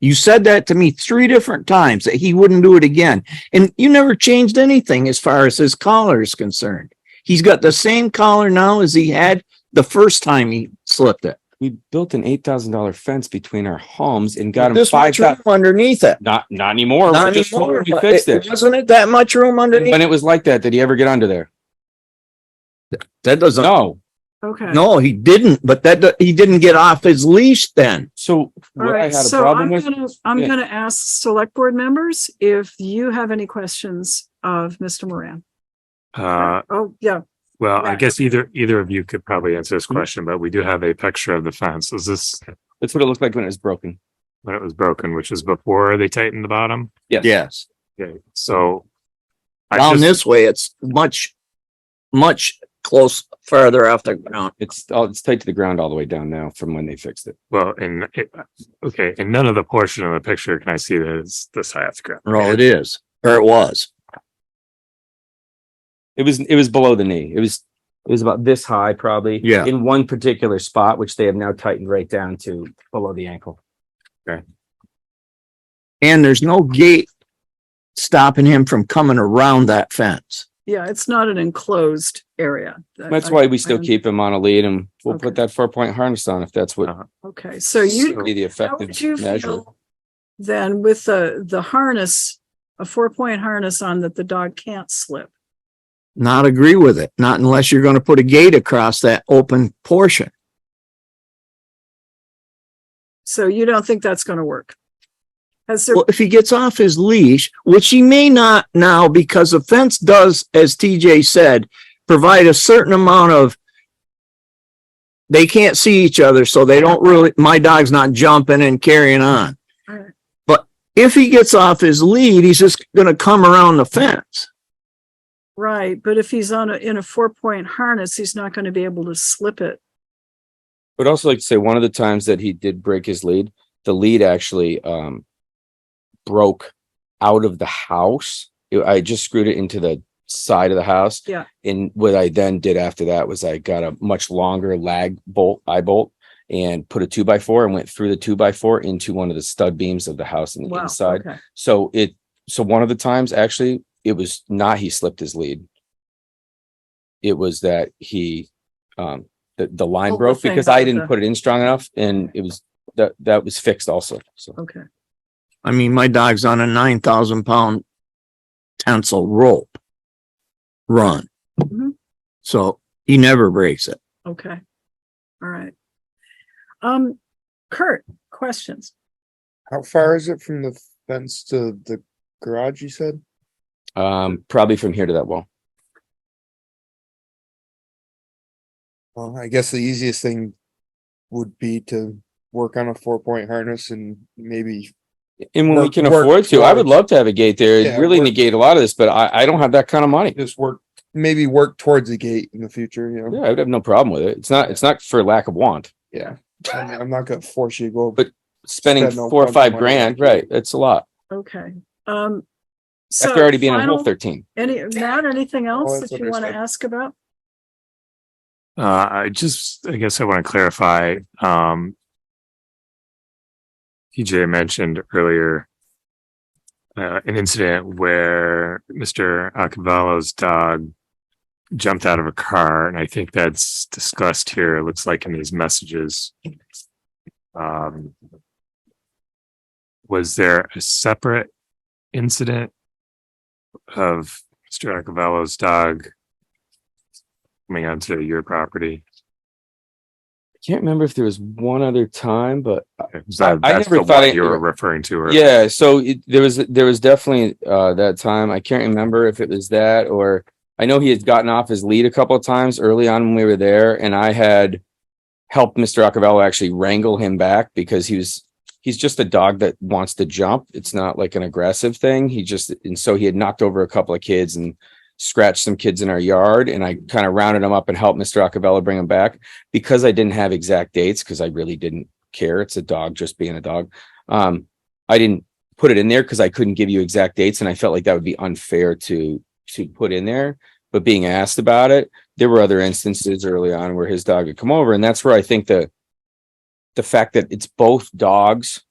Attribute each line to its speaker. Speaker 1: You said that to me three different times that he wouldn't do it again. And you never changed anything as far as his collar is concerned. He's got the same collar now as he had the first time he slipped it.
Speaker 2: We built an eight thousand dollar fence between our homes and got him
Speaker 1: This
Speaker 2: five
Speaker 1: much room
Speaker 2: thousand.
Speaker 1: underneath it.
Speaker 2: Not not anymore.
Speaker 1: Not
Speaker 2: We just-
Speaker 1: anymore,
Speaker 2: We
Speaker 1: but
Speaker 2: fixed
Speaker 1: it-
Speaker 2: it.
Speaker 1: Wasn't it that much room underneath?
Speaker 2: When it was like that, did he ever get under there?
Speaker 1: That doesn't,
Speaker 2: No.
Speaker 3: Okay.
Speaker 1: no, he didn't, but that, do- he didn't get off his leash then.
Speaker 2: So
Speaker 3: All
Speaker 2: what I
Speaker 3: right,
Speaker 2: had a
Speaker 3: so
Speaker 2: problem
Speaker 3: I'm
Speaker 2: with,
Speaker 3: gonna, I'm
Speaker 2: Yeah.
Speaker 3: gonna ask select board members if you have any questions of Mr. Moran.
Speaker 4: Uh,
Speaker 3: Oh, yeah,
Speaker 4: well, I
Speaker 3: Right.
Speaker 4: guess either, either of you could probably answer this question, but we do have a picture of the fence. Is this
Speaker 2: that's what it looked like when it was broken.
Speaker 4: when it was broken, which is before they tightened the bottom?
Speaker 2: Yes.
Speaker 1: Yes.
Speaker 4: Okay, so. I
Speaker 1: Down
Speaker 4: just-
Speaker 1: this way, it's much, much close, farther off the ground.
Speaker 2: It's all it's tight to the ground all the way down now from when they fixed it.
Speaker 4: Well, and, it- okay, and none of the portion of the picture can I see that is this high off the ground.
Speaker 1: Well, it is, or it was.
Speaker 2: It was it was below the knee. It was it was about this high probably.
Speaker 1: Yeah.
Speaker 2: In one particular spot, which they have now tightened right down to below the ankle.
Speaker 1: And there's no gate stopping him from coming around that fence.
Speaker 3: yeah, it's not an enclosed area.
Speaker 2: That's
Speaker 3: I-
Speaker 2: why we still
Speaker 3: I-
Speaker 2: keep him on a lead and we'll put
Speaker 3: Okay.
Speaker 2: that four point harness on if that's what
Speaker 4: Uh-huh.
Speaker 3: Okay, so you,
Speaker 2: would be the
Speaker 3: How would you
Speaker 2: effective measure.
Speaker 3: feel Then with the, the harness, a four point harness on that the dog can't slip.
Speaker 1: Not agree with it, not unless you're gonna put a gate across that open portion.
Speaker 3: So you don't think that's gonna work? Has there,
Speaker 1: Well, if he gets off his leash, which he may not now because the fence does, as TJ said, provide a certain amount of they can't see each other, so they don't really, my dog's not jumping and carrying on.
Speaker 3: Alright.
Speaker 1: But if he gets off his lead, he's just gonna come around the fence.
Speaker 3: right, but if he's on a, in a four point harness, he's not gonna be able to slip it.
Speaker 2: But also like to say one of the times that he did break his lead, the lead actually um broke out of the house. It- I just screwed it into the side of the house.
Speaker 3: Yeah.
Speaker 2: And what I then did after that was I got a much longer lag bolt, eye bolt, and put a two by four and went through the two by four into one of the stud beams of the house on the
Speaker 3: Wow,
Speaker 2: inside.
Speaker 3: okay.
Speaker 2: So it so one of the times actually it was not he slipped his lead. It was that he um the, the line
Speaker 3: Pulled the
Speaker 2: broke
Speaker 3: thing
Speaker 2: because
Speaker 3: out
Speaker 2: I
Speaker 3: of
Speaker 2: didn't
Speaker 3: the-
Speaker 2: put it in strong enough and it was that that was fixed also. So
Speaker 3: Okay,
Speaker 1: I mean, my dog's on a nine thousand pound tensile rope run.
Speaker 3: Mhm.
Speaker 1: So he never breaks it.
Speaker 3: okay. All right. Um, Kurt, questions?
Speaker 5: How far is it from the fence to the garage, you said?
Speaker 2: um probably from here to that wall.
Speaker 5: Well, I guess the easiest thing would be to work on a four point harness and maybe,
Speaker 2: And when we
Speaker 5: Work-
Speaker 2: can
Speaker 5: work
Speaker 2: afford to, I would
Speaker 5: towards-
Speaker 2: love to have a gate there.
Speaker 5: Yeah,
Speaker 2: It'd really
Speaker 5: work-
Speaker 2: negate a lot of this, but I I don't have that kind of money.
Speaker 5: just work, maybe work towards the gate in the future, you
Speaker 2: Yeah,
Speaker 5: know?
Speaker 2: I would have no problem with it. It's not it's not for lack of want.
Speaker 5: Yeah. I'm I'm not gonna force you to go.
Speaker 2: But Spending
Speaker 5: Spend no
Speaker 2: four or
Speaker 5: bunch of
Speaker 2: five
Speaker 5: money.
Speaker 2: grand, right? That's a lot.
Speaker 3: Okay, um. so
Speaker 2: After already being on hole
Speaker 3: final-
Speaker 2: thirteen.
Speaker 3: Any, Matt, anything else
Speaker 5: that's
Speaker 3: that you
Speaker 5: what I
Speaker 3: wanna
Speaker 5: said.
Speaker 3: ask about?
Speaker 4: Uh, I just, I guess I want to clarify, um. TJ mentioned earlier. Uh, an incident where Mr. Acavalo's dog. Jumped out of a car, and I think that's discussed here, it looks like in these messages. Um. Was there a separate incident? Of Mr. Acavalo's dog coming onto your property?
Speaker 2: Can't remember if there was one other time, but
Speaker 4: Is that-
Speaker 2: I
Speaker 4: that's
Speaker 2: never
Speaker 4: the
Speaker 2: thought
Speaker 4: one
Speaker 2: it-
Speaker 4: you were referring to, or
Speaker 2: yeah so it, there was there was definitely uh that time i can't remember if it was that or i know he had gotten off his lead a couple of times early on when we were there and i had helped mr Acavello actually wrangle him back because he was he's just a dog that wants to jump it's not like an aggressive thing he just and so he had knocked over a couple of kids and scratched some kids in our yard and i kind of rounded him up and helped mr Acavello bring him back because i didn't have exact dates because i really didn't care it's a dog just being a dog um I didn't put it in there because I couldn't give you exact dates and I felt like that would be unfair to to put in there. But being asked about it, there were other instances early on where his dog had come over, and that's where I think the the fact that it's both dogs